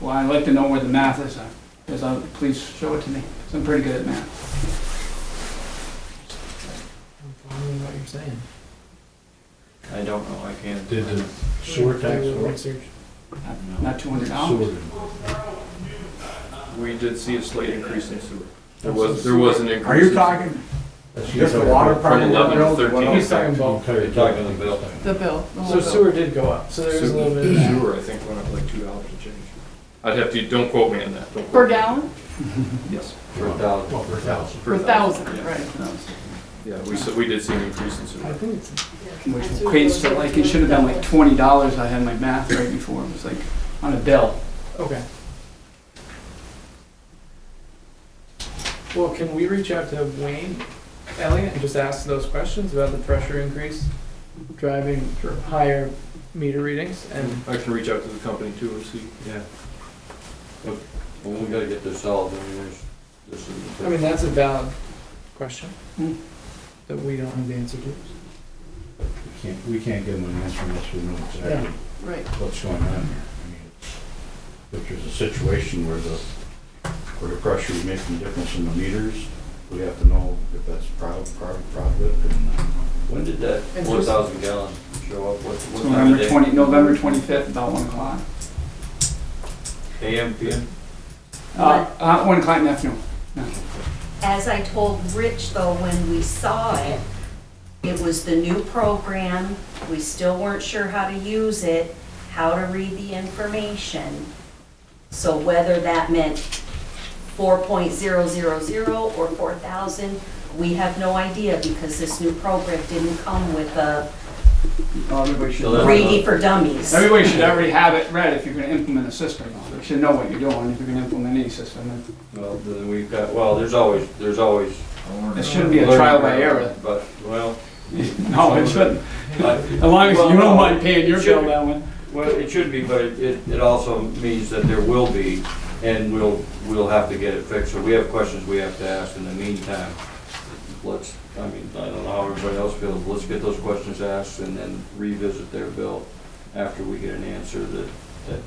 Well, I'd like to know where the math is, uh, is, uh, please show it to me, 'cause I'm pretty good at math. I'm following what you're saying. I don't know, I can't. Did the sewer tax Doing work? research. Not two hundred dollars? We did see a slight increase in sewer. There I'm was, so there was an increase. Are you in- talking just the water part of the 11 to bill? to what 13. He's else? talking about, You're talking the bill. The bill, so the whole bill. sewer did go up, so there was a little bit of that. Sewer, I think, went up like two dollars and change. I'd have to, don't quote me on that, don't quote. Per me. gallon? Yes. For a thousand. Well, for a thousand. Per thousand, yeah. right. Yeah, we, s- we did see an increase in I sewer. think it's, Which equates to like, it should have been like twenty dollars, I had my math right before, it was like, on a bill. okay. Well, can we reach out to Wayne Elliott and just ask those questions about the pressure increase driving higher meter readings and I can reach out to the company too and see. Yeah. But, well, we gotta get this solved, I mean, there's, this is. I mean, that's a valid question Hmm. that we don't have the answer to. We can't, we can't give them an answer unless we know exactly Right. what's going on here. I mean, it's- If there's a situation where the, where the pressure is making a difference in the meters, we have to know if that's proud, proud, proud of it and When did that And four just- thousand gallon show up? What, It's what time of November day? twenty, November twenty-fifth, about one o'clock. AM, PM? Uh, uh, one o'clock in the afternoon. As I told Rich, though, when we saw it, it was the new program. We still weren't sure how to use it, how to read the information. So whether that meant 4.000 or 4,000, we have no idea because this new program didn't come with a Oh, Everybody should, So that's- ready for dummies. everybody should already have it read if you're gonna implement a system. You should know what you're doing if you're gonna implement any system. Well, then we've got, well, there's always, there's always. It shouldn't be a trial by error. But, well, No, it shouldn't. I, As long as you don't mind paying your bill Well, no. that way. Well, it should be, but it- it, it also means that there will be, and we'll, we'll have to get it fixed. So we have questions we have to ask in the meantime. Let's, I mean, I don't know how everybody else feels, but let's get those questions asked and then revisit their bill after we get an answer that, that,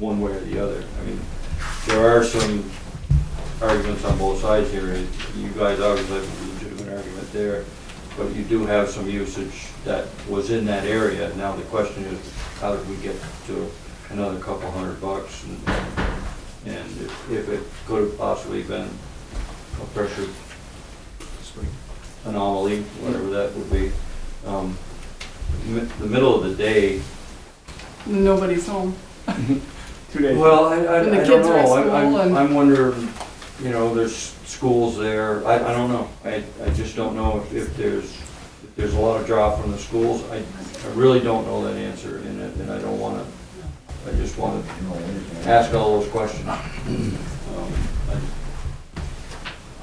one way or the other. I mean, there are some arguments on both sides here. You guys obviously have a legitimate argument there, but you do have some usage that was in that area. Now the question is, how did we get to another couple hundred bucks? And- And if- if it could have possibly been a pressure anomaly, whatever that would be. um, mi- The middle of the day, Nobody's home. Two days. well, I, I I And the don't kids are at know, I'm- school I'm, and- I'm wondering, you know, there's schools there, I, I don't know. I, I just don't know if, if there's, if there's a lot of drop from the schools, I, I really don't know that answer, and, I- and I don't wanna, I just wanna ask all those questions. Um,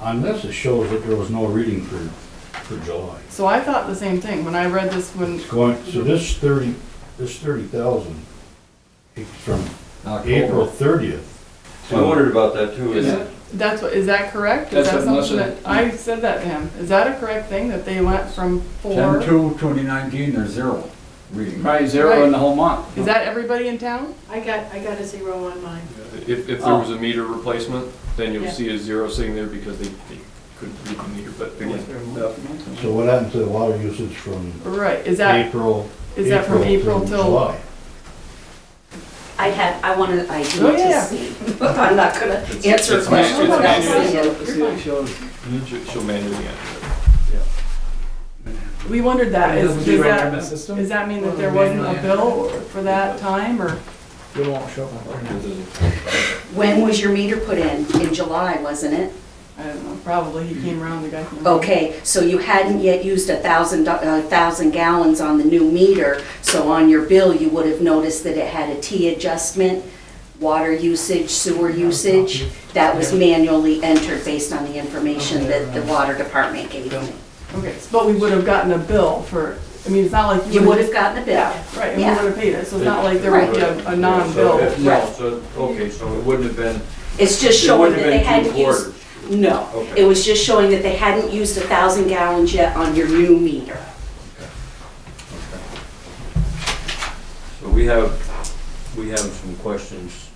I- On this, it shows that there was no reading for, for July. So I thought the same thing when I read this when, It's going, so this thirty, this thirty thousand, it's from April thirtieth. I wondered about that too. Is and- it- that's what, is that correct? Is That's that what something Melissa- that, I said that to him. Is that a correct thing that they went from four? 10-2, 2019, there's zero reading. Probably zero in the whole month. Is that everybody in town? I got, I got a zero on mine. If, if there was Oh. a meter replacement, then you'll Yeah. see a zero sitting there because they, they couldn't read the meter, but again, So what happened to the water usage from Right, is that, April? is that from April to till? July? I had, I wanted, I Oh, do to yeah. see, but I'm not gonna answer it's man- questions. it's about manual. it. she'll- she'll manually enter it. We wondered that. Is, Doesn't does show up on the that, system? does that mean that there wasn't a bill or- for that time or? It won't show up on there. It doesn't- When was your meter put in? In July, wasn't it? I don't know, probably he came around, the guy came around. Okay, so you hadn't yet used a thousand, a thousand gallons on the new meter, so on your bill, you would have noticed that it had a T adjustment, water usage, sewer usage. That was manually entered based on the information that the water department gave me. Okay, but we would have gotten a bill for, I mean, it's not like you You would have gotten a bill. Right, and we Yeah. would have paid it, so it's not like there would be a, a non-bill. So, No, Right. so, okay, so it wouldn't have been, It's just it showing wouldn't that they have been two hadn't used. quarters. No, Okay. it was just showing that they hadn't used a thousand gallons yet on your new meter. So we have, we have some questions